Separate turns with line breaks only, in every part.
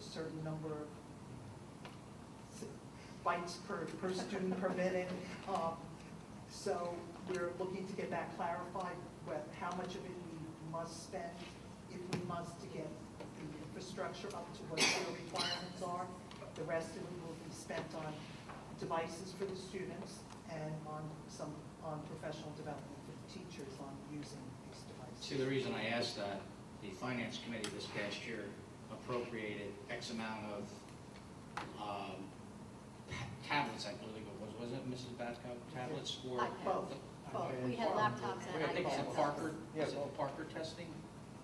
certain number of s- bites per, per student per minute. Um, So we're looking to get that clarified, with how much of it we must spend, if we must, to get the infrastructure up to what their requirements are. The rest of it will be spent on devices for the students and on some, on professional development for the teachers on using these
See,
devices.
the reason I asked that, the finance committee this past year appropriated X amount of um, ta- tablets, I believe it was, wasn't it, Mrs. Batco? Tablets for,
iPads.
Both, both.
We had laptops and
I think it's
iPads.
a Parker,
Yeah,
is it
both.
Parker testing?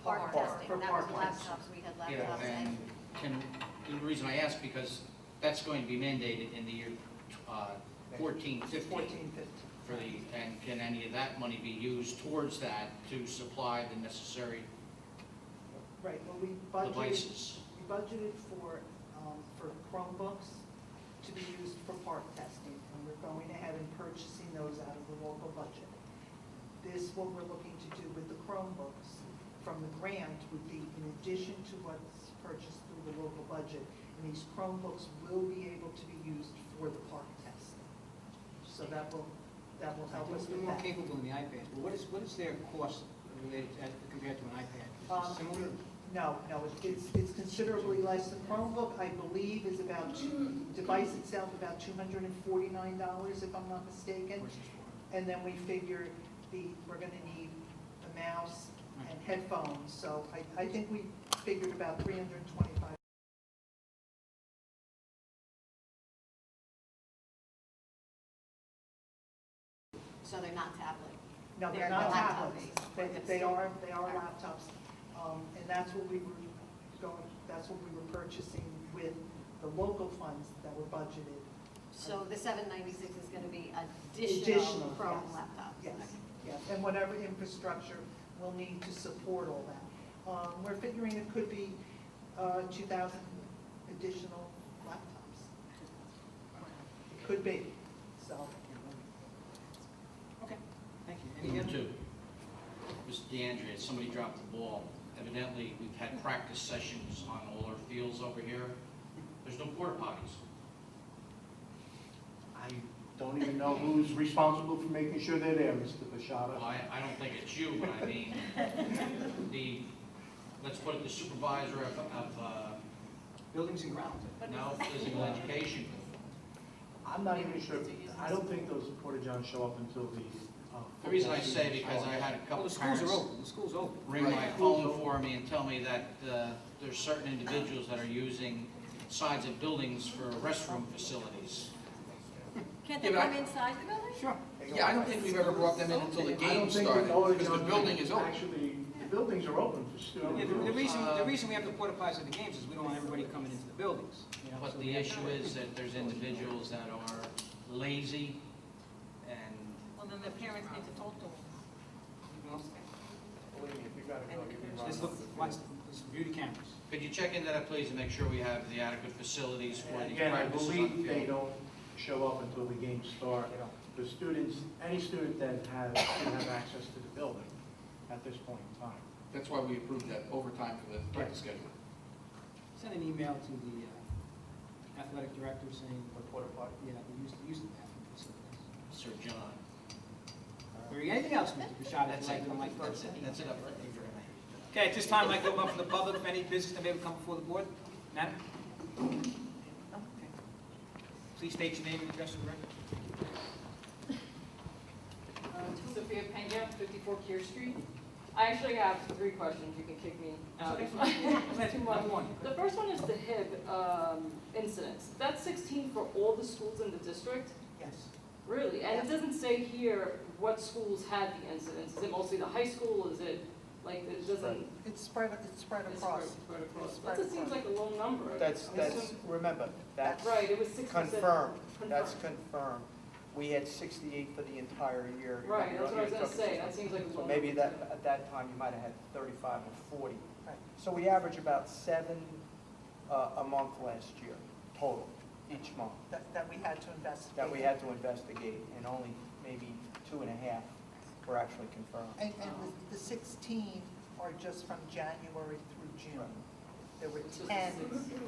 Park
Park, for
testing, that was
park testing.
laptops, we had
Yeah,
laptops
and
and,
can, the reason I asked, because that's going to be mandated in the year uh, 14, 15.
14, 15.
for the, and can any of that money be used towards that to supply the necessary
Right, well, we budgeted,
devices?
we budgeted for, um, for Chromebooks to be used for park testing, and we're going ahead and purchasing those out of the local budget. This, what we're looking to do with the Chromebooks from the grant would be in addition to what's purchased through the local budget, and these Chromebooks will be able to be used for the park testing. So that will, that will help us
They're
with
more
that.
capable than the iPad, but what is, what is their cost related as compared to an iPad? Is
Um,
it similar?
No, no, it's, it's considerably less. The Chromebook, I believe, is about, two- device itself, about two hundred and forty-nine dollars, if I'm not mistaken.
Or is it
And then we figure the, we're gonna need a mouse and headphones, so I, I think we figured about three hundred and twenty-five.
so they're not tablet.
No, they're
They're
not
laptop
tablets. They,
based.
they are, they are laptops. Um, and that's what we were going, that's what we were purchasing with the local funds that were budgeted.
So the seven ninety-six is gonna be
Additional,
additional Chrome
yes.
laptops.
Yes,
Okay.
yes, and whatever infrastructure we'll need to support all that. Um, We're figuring it could be uh, 2,000 additional laptops. It Could be, so.
Okay, thank you. Any
Number
other?
two, Mr. DeAndrea, somebody dropped the ball. Evidently, we've had practice sessions on all our fields over here. There's no porta potties.
I don't even know who's responsible for making sure they're there, Mr. Bashada.
Well, I, I don't think it's you, but I mean, the, let's put it, the supervisor of, of, uh,
Buildings and grounds.
no, physical education.
I'm not even sure, I don't think those porta-johns show up until the. uh,
The reason I
football
say
season
because I
starts.
had a
Well,
couple
the schools are
parents
open, the school's open.
ring my phone for me and tell me that, uh, there's certain individuals that are using sides of buildings for restroom facilities.
Can't they
Yeah, but I-
come inside the building?
Sure.
Yeah, I don't think we've ever brought them in until the
I don't
game
think
started,
porta
because the
johns
building is open.
Actually, the buildings are open for
Yeah,
students.
the the reason,
Um,
the reason we have the porta potties at the games is we don't want everybody coming into the buildings. you know, so
But
we
the
have-
issue is that there's individuals that are lazy and
Well, then the parents need to talk to them.
Well,
Believe me, if you gotta go, you can run.
Just look, watch, there's beauty cameras.
could you check into that, please, and make sure we have the adequate facilities for
And
the
Again, I
practices on
believe
the
they
field?
don't show up until the games start. The students, any student that has, can have access to the building at this point in time.
That's why we approved that overtime for the practice schedule.
Send an email to the uh, athletic director saying,
porta potty.
yeah, we used to use the bathroom facilities.
Sir John.
Or anything else, Mr. Bashad, if
That's
you'd like
it,
to on my first.
that's it, that's it.
Okay, at this time, I'd like to open up for the public, if any business that may have come before the board. Madam? Okay. Please state your name and address for the record.
Uh, Sophia Pena, 54 Kier Street. I actually have three questions, you can kick me out.
That's
if
okay.
I-
That's
Too much.
one.
The first one is the HIB um, incidents. That's 16 for all the schools in the district?
Yes.
Really? And it doesn't say here what schools had the incidents. Is it mostly the high school? Is it, like, it doesn't?
It's spread, it's spread
it's
across.
spread- spread across.
Spread
That just seems
across.
like a low number.
That's,
I'm
that's,
assuming-
remember, that's
Right, it was 67.
confirmed, that's
Confirmed.
confirmed. We had sixty-eight for the entire year.
Right,
You're
that's
not-
what I was gonna
you're talking
say.
60.
That seems like a low
So
number.
maybe that, at that time, you might have had thirty-five or forty.
Right.
So we average about seven uh, a month last year, total, each month,
That, that we had to investigate.
that we had to investigate, and only maybe two and a half were actually confirmed.
And, and the- the sixteen are just from January through June. There were
It's just a
ten
six.